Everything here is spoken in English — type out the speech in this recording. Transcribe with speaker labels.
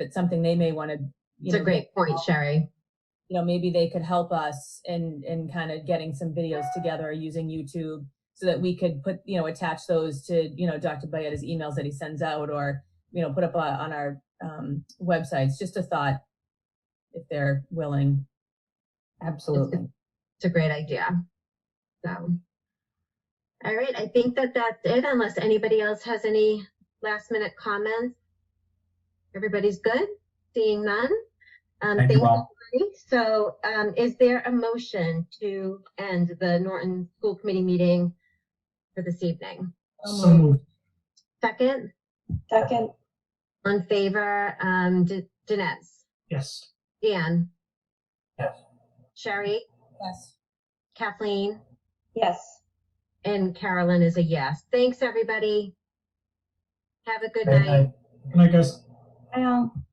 Speaker 1: it's something they may want to, you
Speaker 2: It's a
Speaker 1: know,
Speaker 2: great point, Sherry.
Speaker 1: you know, maybe they could help us in, in kind of getting some videos together using YouTube so that we could put, you know, attach those to, you know, Dr. Bayetta's emails that he sends out or, you know, put up uh, on our um, websites. Just a thought if they're willing.
Speaker 3: Absolutely.
Speaker 2: It's a great idea. So. All right, I think that that's it unless anybody else has any last minute comments. Everybody's good? Seeing none? Um,
Speaker 4: Thank you all.
Speaker 2: everybody. So, um, is there a motion to end the Norton School Committee meeting for this evening?
Speaker 4: So moved.
Speaker 2: Second,
Speaker 3: Second,
Speaker 2: on favor, um, D- Dinesh,
Speaker 4: Yes.
Speaker 2: Dan?
Speaker 4: Yes.
Speaker 2: Sherry,
Speaker 1: Yes.
Speaker 2: Kathleen?
Speaker 3: yes.
Speaker 2: And Carolyn is a yes. Thanks, everybody. Have a good
Speaker 4: Good
Speaker 2: night.
Speaker 4: night. Good night, guys.
Speaker 3: Um,